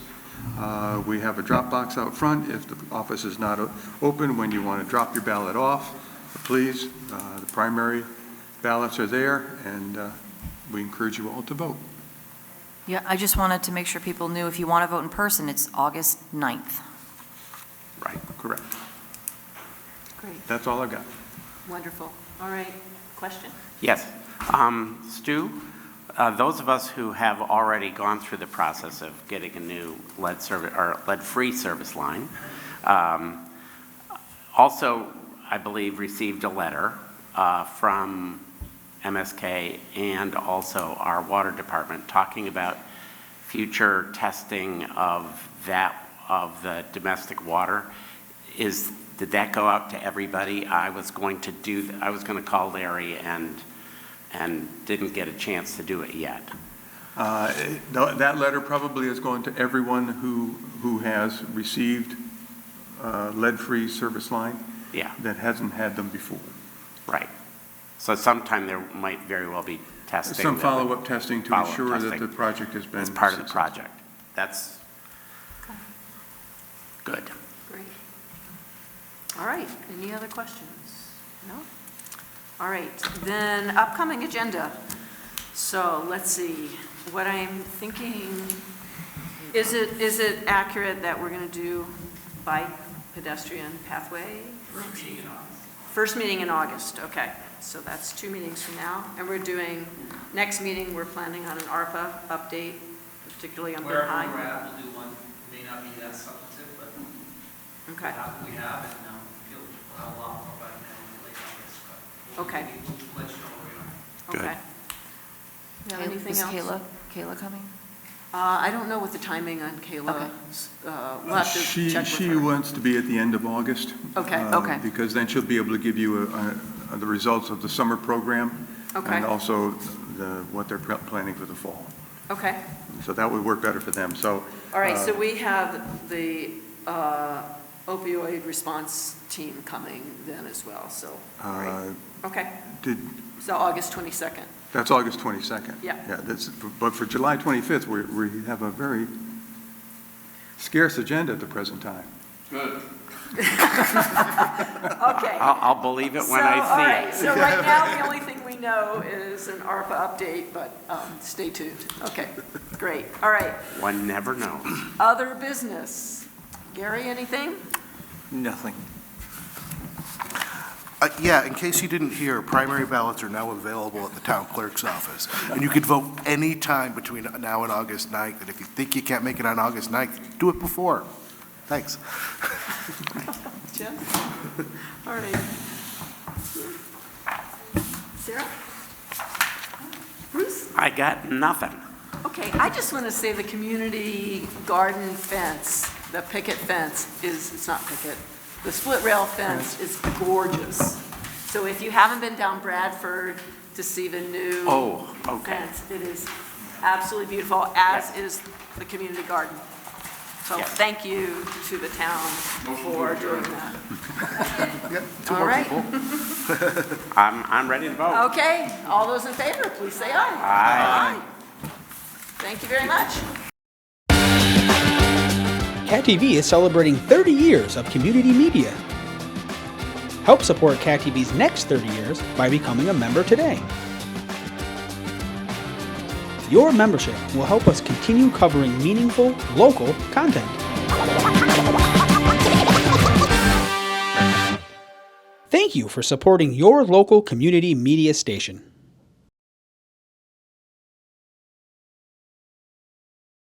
Uh, We have a drop box out front. If the office is not o- open, when you want to drop your ballot off, please, uh, the primary ballots are there, and uh, we encourage you all to vote. Yeah, I just wanted to make sure people knew if you want to vote in person, it's August 9th. Right. Correct. Great, That's all I got. wonderful. All right, question? Yes. Um, Stu, uh, those of us who have already gone through the process of getting a new lead service, or lead-free service line, um, also, I believe, received a letter uh, from MSK and also our water department talking about future testing of that, of the domestic water. Is, did that go out to everybody? I was going to do, I was going to call Larry and, and didn't get a chance to do it yet. Uh, it- th- That letter probably is going to everyone who, who has received uh, lead-free service line Yeah, that hasn't had them before. right. So sometime there might very well be testing. Some that would- follow-up testing to Follow-up ensure that the testing. project has been. As part of the successful. project. That's good. Great. All right, any other questions? No? All right, then upcoming agenda. So let's see, what I'm thinking, is it, is it accurate that we're going to do bike pedestrian pathway? First meeting in August, okay. So that's two meetings from now. And we're doing, next meeting, we're planning on an ARPA update, particularly on Burn Wherever High. we're at, we'll do one, It may not be that substantive, but we Okay, have, we have, and um, feel a lot more about it now, in late August, but. we'll- Okay. We'll we'll let you know where we are. Good. okay. Yeah, Kay- anything Is else? Kayla, Kayla coming? Uh, I don't know what the timing on Kayla's, uh, we'll have to She, check with she her. wants to be at the end of August. Okay, uh, okay. Because then she'll be able to give you uh, uh, the results of the summer program. Okay, And also the, what they're pre- planning for the fall. okay. So that would work better for them. So All right, so Uh, we have the uh, opioid response team coming then as well, so, all right. uh, okay. did, So August 22nd, that's August 22nd. Yeah. Yeah, that's, but for July 25th, we, we have a very scarce agenda at the present time. okay. I'll, I'll believe it So, when all I see right, it. So right now, the only thing we know is an ARPA update, but um, stay tuned. Okay, great, all right. One never knows. Other business. Gary, anything? Nothing. Uh, Yeah, in case you didn't hear, primary ballots are now available at the town clerk's office. And you can vote any time between now and August 9th. And if you think you can't make it on August 9th, do it before. Thanks. Jim? All right. Sarah? Bruce? I got nothing. Okay, I just want to say the community garden fence, the picket fence is, it's not picket, the split rail fence is gorgeous. So if you haven't been down Bradford to see the new Oh, okay. fence, it is absolutely beautiful, as is the community garden. So Yes. thank you to the town for doing that. Two All more right. people. I'm, I'm ready to vote. Okay, all those in favor, please say aye. Aye. Aye. Thank you very much. Cat TV is celebrating 30 years of community media. Help support Cat TV's next 30 years by becoming a member today. Your membership will help us continue covering meaningful, local content. Thank you for supporting your local community media station.